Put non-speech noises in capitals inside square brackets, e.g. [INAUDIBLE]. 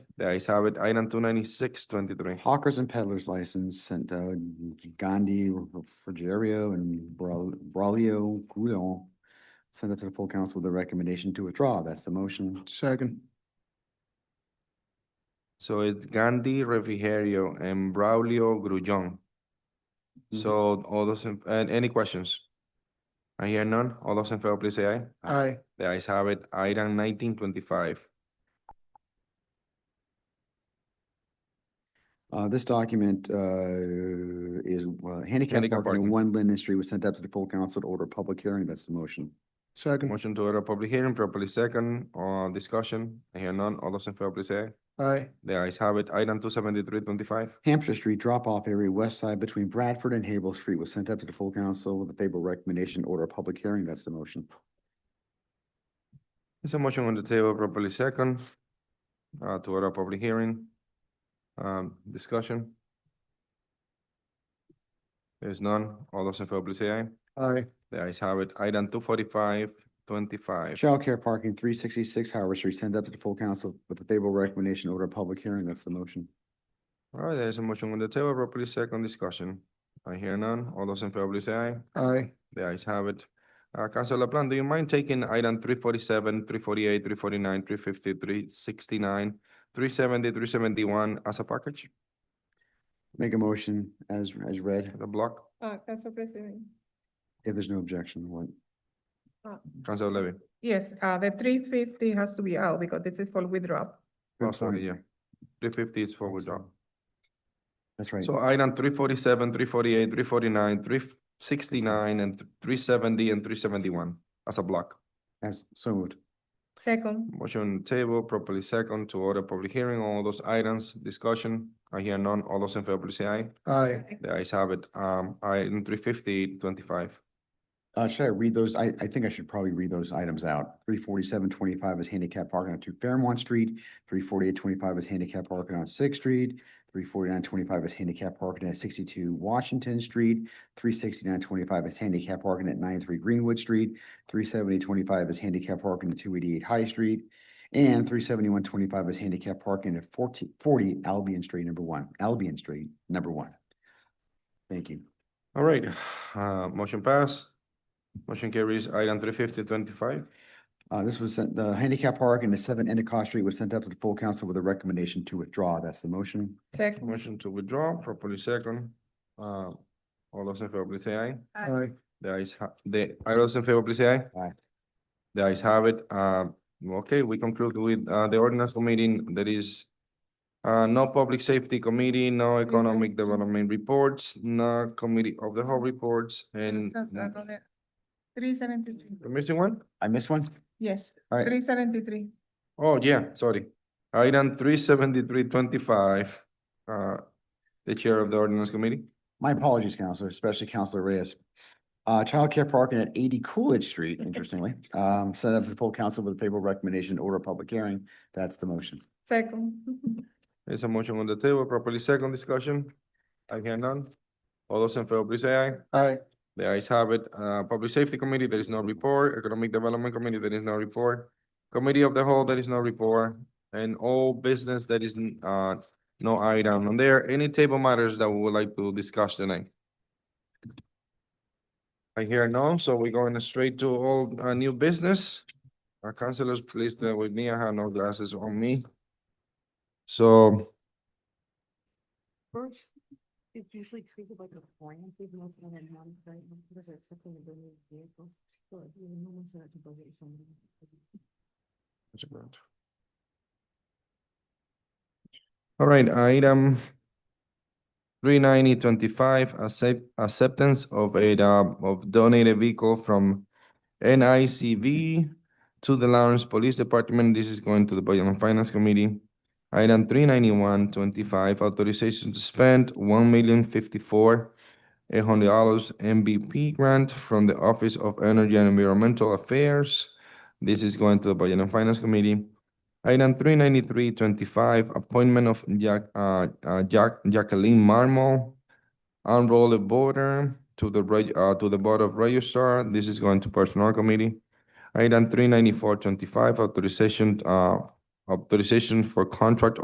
The ayes have it. Item two ninety-six twenty-three. Hawkers and Peddlers License sent to Gandhi, Refrigerio, and Bra- Braulio Coulon. Send it to the full council with a recommendation to withdraw. That's the motion. Second. So it's Gandhi, Refrigerio, and Braulio Grullón. So all those, in- and any questions? I hear none. All those in favor, please say aye. Aye. The ayes have it. Item nineteen twenty-five. Uh, this document, uh, is uh, handicap Handicap parking parking. on One Linden Street was sent up to the full council to order a public hearing. That's the motion. Mm. Second. Motion to order a public hearing properly second or discussion. I hear none. All those in favor, please say aye. Aye. The ayes have it. Item two seventy-three twenty-five. Hampshire Street drop-off area west side between Bradford and Haverhill Street was sent up to the full council with a favorable recommendation to order a public hearing. That's the motion. There's a motion on the table properly second, uh, to order a public hearing. Um, discussion. There's none. All those in favor, please say aye. Aye. The ayes have it. Item two forty-five twenty-five. Childcare parking, three sixty-six Howard Street, sent up to the full council with a favorable recommendation to order a public hearing. That's the motion. All right, there is a motion on the table properly second discussion. I hear none. All those in favor, please say aye. Aye. The ayes have it. Uh, Counselor LaPlante, do you mind taking item three forty-seven, three forty-eight, three forty-nine, three fifty, three sixty-nine, three seventy, three seventy-one as a package, Make a motion as, as read, the block? Uh, Council President. if there's no objection, what? Counselor Levy? Yes, uh, the three fifty has to be out because this is for withdrawal. Oh, sorry, yeah. Three fifty is for withdrawal. That's right. So item three forty-seven, three forty-eight, three forty-nine, three sixty-nine, and three seventy and three seventy-one as a block. As, so moved. Second, Motion on the table properly second to order public hearing on all those items, discussion. I hear none. All those in favor, please say aye. Aye. The ayes have it. Um, item three fifty twenty-five. Uh, should I read those? I, I think I should probably read those items out. Three forty-seven twenty-five is handicap parking on two Fairmont Street. Three forty-eight twenty-five is handicap parking on Sixth Street. Three forty-nine twenty-five is handicap parking at sixty-two Washington Street. Three sixty-nine twenty-five is handicap parking at 93 Greenwood Street. Three seventy twenty-five is handicap parking at two eighty-eight High Street. And three seventy-one twenty-five is handicap parking at 40 Albion Street, number one, Albion Street, number one. Thank you. All right, [SIGHS] uh, motion pass. Motion carries item three fifty twenty-five. Uh, this was sent, the handicap park and the seven Endicott Street was sent up to the full council with a recommendation to withdraw. That's the motion. second. Motion to withdraw properly second. Uh, all those in favor, please say aye. Aye. The ayes, ha- the, all those in favor, please say aye. Aye. The ayes have it. Uh, okay, we conclude with, uh, the ordinance meeting. There is uh, no public safety committee, no economic development reports, no committee of the whole reports Uh, and Three seventy-three, we're missing one? I missed one? yes, All right. three seventy-three. Oh, yeah, sorry. Item three seventy-three twenty-five, uh, the chair of the ordinance committee. My apologies, Counselor, especially Counselor Reyes. Uh, childcare parking at eighty Coolidge Street, interestingly, um, sent up to the full council with a favorable recommendation to order a public hearing. That's the motion. Second, There's a motion on the table, properly second discussion. I hear none. All those in favor, please say aye. Aye. The ayes have it. Uh, Public Safety Committee, there is no report. Economic Development Committee, there is no report. Committee of the Whole, there is no report. And all business, there is, n- uh, no item. on there any table matters that we would like to discuss tonight? I hear none, so we're going straight to all, uh, new business. Our counselors, please bear with me. I have no glasses on me. So First, it's usually treated like a grant, even though it's not a monetary, because it's something to do with vehicle. So if you know, it's not to go get somebody. That's a grant. All right, item three ninety twenty-five, accept, acceptance of a, uh, of donated vehicle from NICV to the Lawrence Police Department. This is going to the Budget and Finance Committee. Item three ninety-one twenty-five, authorization to spend one million fifty-four eight hundred dollars MVP grant from the Office of Energy and Environmental Affairs. This is going to the Budget and Finance Committee. Item three ninety-three twenty-five, appointment of Jack, uh, uh, Jack, Jacqueline Marmol, unrolled voter to the reg, uh, to the Board of Registrar. This is going to Personnel Committee. Item three ninety-four twenty-five, authorization, uh, authorization for contract